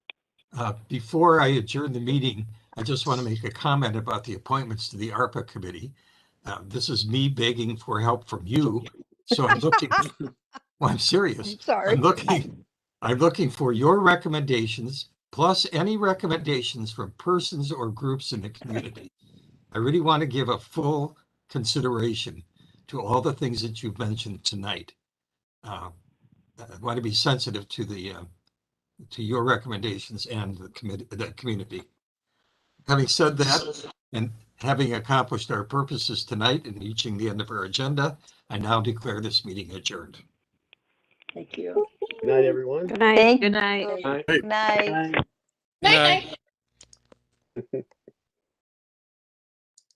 Uh, Before I adjourn the meeting, I just want to make a comment about the appointments to the ARPA committee. Uh, This is me begging for help from you, so I'm looking, well, I'm serious. I'm sorry. I'm looking, I'm looking for your recommendations, plus any recommendations from persons or groups in the community. I really want to give a full consideration to all the things that you've mentioned tonight. Uh, I want to be sensitive to the, uh, to your recommendations and the committee, the community. Having said that, and having accomplished our purposes tonight and reaching the end of our agenda, I now declare this meeting adjourned. Thank you. Good night, everyone. Good night. Thank Good night. Night. Night.